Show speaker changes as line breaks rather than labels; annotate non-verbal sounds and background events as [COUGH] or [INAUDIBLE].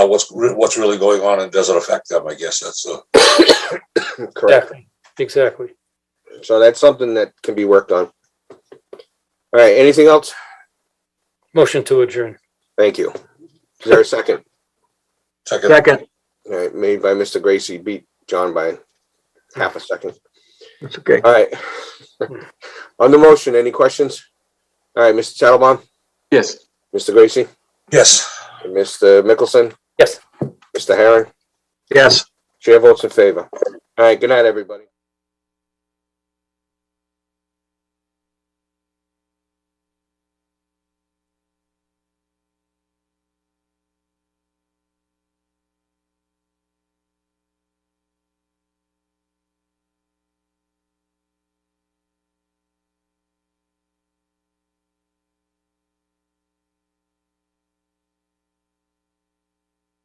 what's, re- what's really going on and does it affect them? I guess that's the,
Correct.
Exactly. Exactly.
So that's something that can be worked on. All right, anything else?
Motion to adjourn.
Thank you. Is there a second?
second,
Second,
All right, made by Mr. Gracie, beat John by half a second.
that's okay.
All right. [LAUGHS] On the motion, any questions? All right, Mr. Tattlebaum,
Yes.
Mr. Gracie,
yes.
and Mr. Mickelson?
Yes.
Mr. Herron?
Yes.
Chair votes in favor. All right, good night, everybody.